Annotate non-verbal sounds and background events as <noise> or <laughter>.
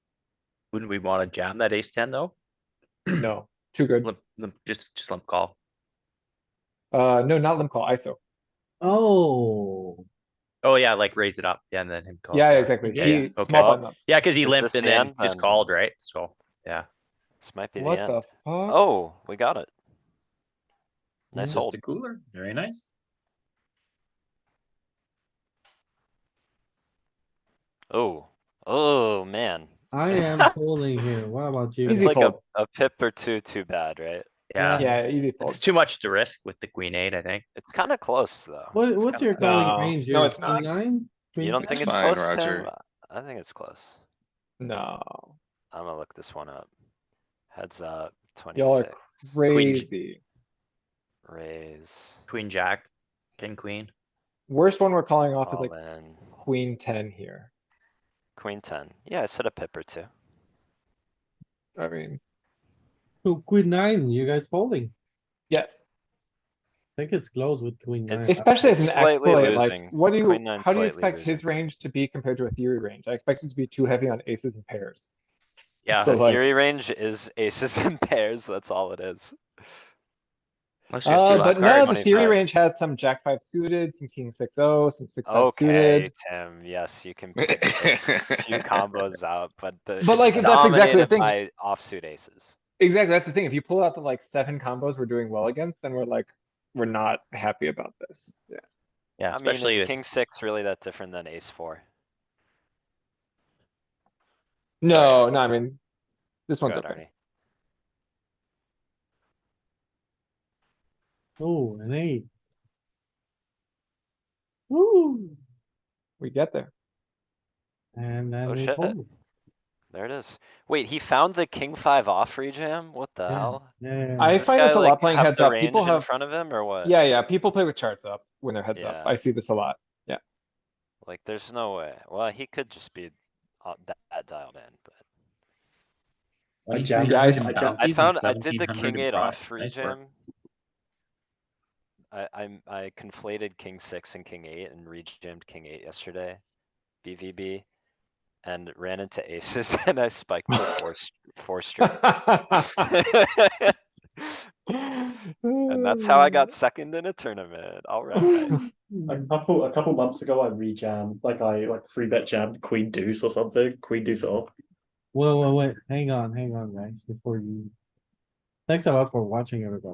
Wouldn't we wanna jam that ace ten though? No, too good. Limp, limp, just, just limp call. Uh, no, not limp call, ISO. Oh, Oh yeah, like raise it up, yeah, and then him Oh, call. Yeah, exactly. Yeah, He yeah, small okay. blind up. Yeah, cause he Is limped this and the then end just then? called, right? So, yeah. This might be the What the end. fuck? Oh, Oh, we got it. Nice Mhm. hold. Just a Mm, cooler, very nice. Oh, oh, man. <laughs> I am holding here. What about you? It's Easy like a, fold. a pip or two too bad, right? Yeah, yeah, easy it's fold. too much to risk with the queen eight, I think. It's kinda close, though. What, It's what's your kinda- calling No. range here? No, it's not. Nine? You don't That's think it's fine, close, Tim? Roger. I think it's close. No, I'm gonna look this one up. Heads up, Y'all are twenty-six. crazy. Raise, Queen, jack, king, queen. Worst one we're calling off is like all in, queen ten here. queen ten. Yeah, I said a pip or two. I mean, So Oh, queen nine, you guys folding. yes, I think it's close with queen nine. It's- especially as an Slightly exploit, like, losing. what do Queen you, nine's how do you slightly expect his losing. range to be compared to a theory range? I expect it to be too heavy on aces and pairs. Yeah, So The like- theory range is aces <laughs> and pairs, that's all it is. unless you have Uh, two but left no, cards. the theory 25. range has some jack five suited, some king six oh, some six five Okay, suited. Tim, yes, you <laughs> can pick those few combos out, but the. But, it's like, that's exactly the dominated thing. By offsuit aces. Exactly, that's the thing. If you pull out the like seven combos we're doing well against, then we're like, we're not happy about this. Yeah. Yeah, I mean, especially is if king it's- six really that different than ace four? No, no, I mean, this Go one's ahead, okay. Arnie. Oh, an eight. Woo, We get there. and then Oh, we shit. fold. There it is. Wait, he found the king five off rejam? What the Yeah. hell? Yeah. I Does this find guy, this a lot like, playing have heads the up. People range in have- Front of him or what? Yeah, yeah, people play with charts up when they're heads up. Yeah. I see this a lot. Like, there's no way. Well, he could just be uh, that- that dialed in, but. I Yeah, jammed I- it in I No, I bounties and found, I did the 1700 king eight off broads. Nice work. rejam. I, I'm, I conflated king six and king eight and rejammed king eight yesterday, BVB. And ran into aces <laughs> and I spiked for <laughs> four, s- <laughs> four straight. <laughs> And And that's how <laughs> I got second in a tournament, alright. A couple, a couple months ago, I rejammed, like I like free bet jammed queen deuce or something, queen deuce off. Wait, wait, wait, hang on, hang on, guys, before you. Thanks a lot for watching, everybody.